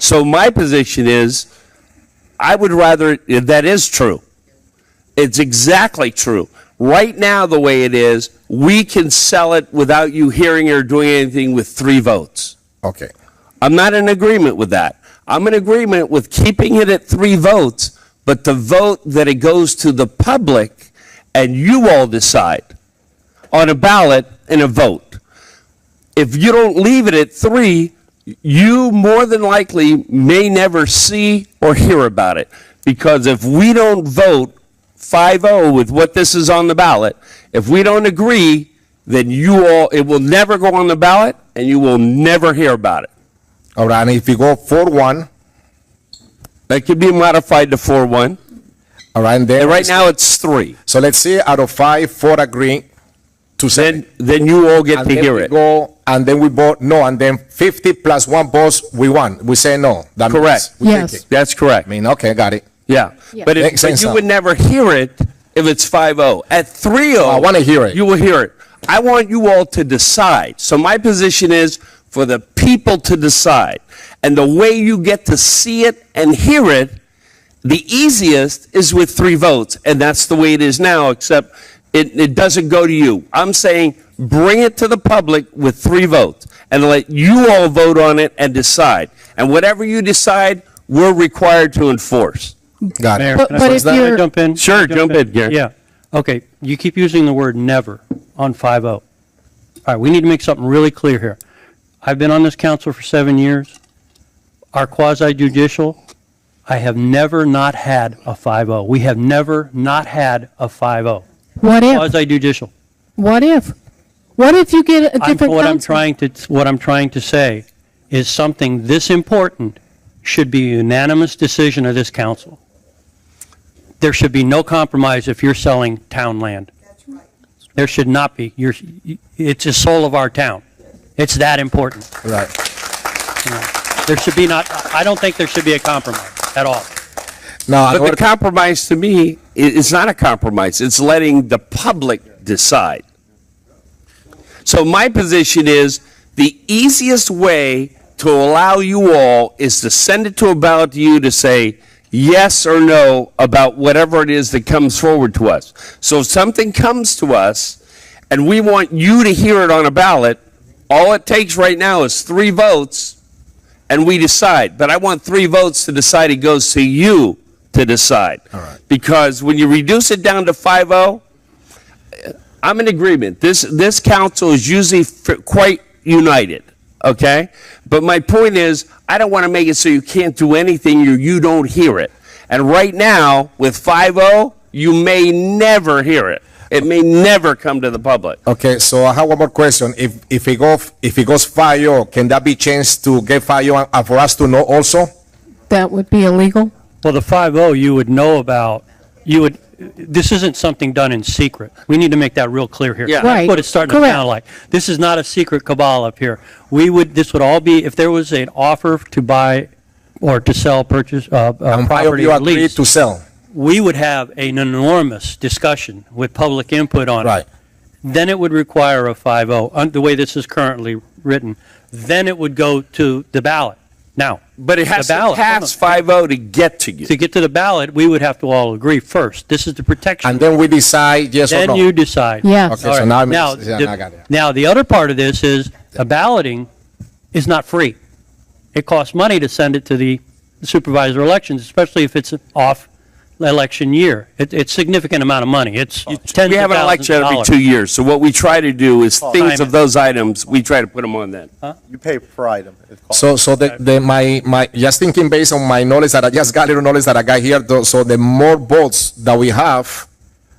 So my position is, I would rather, that is true. It's exactly true. Right now, the way it is, we can sell it without you hearing or doing anything with three votes. Okay. I'm not in agreement with that. I'm in agreement with keeping it at three votes, but the vote that it goes to the public and you all decide on a ballot in a vote. If you don't leave it at three, you more than likely may never see or hear about it. Because if we don't vote 5-0 with what this is on the ballot, if we don't agree, then you all, it will never go on the ballot and you will never hear about it. All right, and if you go four one, That could be modified to four one. all right, and then. And right now it's three. So let's say out of five, four agree to Then seven. then you all get And to then hear we it. Go, and then we vote no, and then fifty plus one votes, we won. We say no. That means Correct. we take Yes. it. That's I correct. mean, okay, got it. Yeah. Yeah. But it, Makes but sense you now. would never hear it if it's five oh. At three oh. I wanna hear it. You will hear it. I want you all to decide. So my position is for the people to decide. And the way you get to see it and hear it, the easiest is with three votes. And that's the way it is now, except it, it doesn't go to you. I'm saying bring it to the public with three votes and let you all vote on it and decide. And whatever you decide, we're required to enforce. Got Mayor, it. But- can I- but can if I you're- Jump in? Sure, jump in, Gary. Yeah. Okay, you keep using the word never on 5-0. All right, we need to make something really clear here. I've been on this council for seven years. Our quasi judicial, I have never not had a 5-0. We have never not had a oh. 5-0. What if? Quasi judicial. What if? What if you get a I'm, different what I'm council? trying to, what I'm trying to say is something this important should be a unanimous decision of this council. There should be no compromise if you're selling town land. There should not be. You're, it's the soul of our town. It's that important. Right. There should be not, I don't think there should be a compromise at all. Now, in But order the compromise to me i- is not a compromise. It's letting the public decide. So my position is the easiest way to allow you all is to send it to a ballot to you to say yes or no about whatever it is that comes forward to us. So if something comes to us and we want you to hear it on a ballot, all it takes right now is three votes and we decide. But I want three votes to decide it goes to you to decide. All right. Because when you reduce it down to 5-0, I'm in agreement. This, this council is usually f- quite united, okay? But my point is, I don't want to make it so you can't do anything or you don't hear it. And right now, with 5-0, you may never hear it. It may never come to the public. Okay, so I have one more question. If, if it go, if it goes fire, can that be changed to get fire and- and for us to know also? That would be illegal? Well, the 5-0 you would know about, you would, this isn't something done in secret. We need to make that real clear here. Yeah. That's Right. what it's starting to Correct. sound like. This is not a secret cabal up here. We would, this would all be, if there was an offer to buy or to sell, purchase, uh, uh, And fire property you or agree lease, to sell, we would have an enormous discussion with public input on it. right? Then it would require a 5-0, un- the way this is currently written. Then it would go to the ballot. Now, But it has The to ballot. pass 5-0 to get to you. to get to the ballot, we would have to all agree first. This is the protection. And then we decide yes or Then no. you decide. Yes. Okay, All so right. now, I'm- Now, yeah, the- now I got it. now, the other part of this is, the balloting is not free. It costs money to send it to the supervisor elections, especially if it's off election year. It, it's significant amount of money. It's tens of thousands We have of an election every dollars. two years, so what we try to do is things Simon. of those items, we try to put them on then. You pay per item. It's called- So, so the, the, my, my, just thinking based on my knowledge that I just got, little knowledge that I got here, though, so the more votes that we have,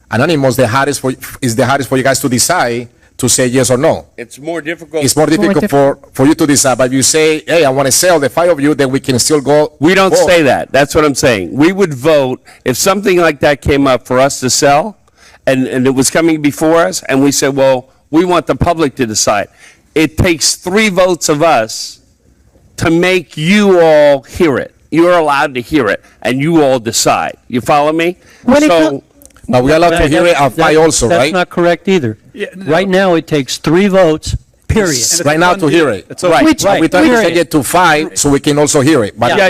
anonymous, the hardest for, is the hardest for you guys to decide to say yes or no. It's more difficult. It's more difficult diff- for, for you to decide, but you say, hey, I want to sell the five of you, then we can still go. We don't vote. say that. That's what I'm saying. We would vote, if something like that came up for us to sell, and, and it was coming before us, and we said, well, we want the public to decide. It takes three votes of us to make you all hear it. You're allowed to hear it, and you all decide. You follow me? When it So, co- But we allowed to That- hear it that- at five also, That's right? not correct either. Right now, it takes three votes Period. right now to hear it. It's okay. Right. Which- We try to Right. take it to five so we can also hear it. But Yeah,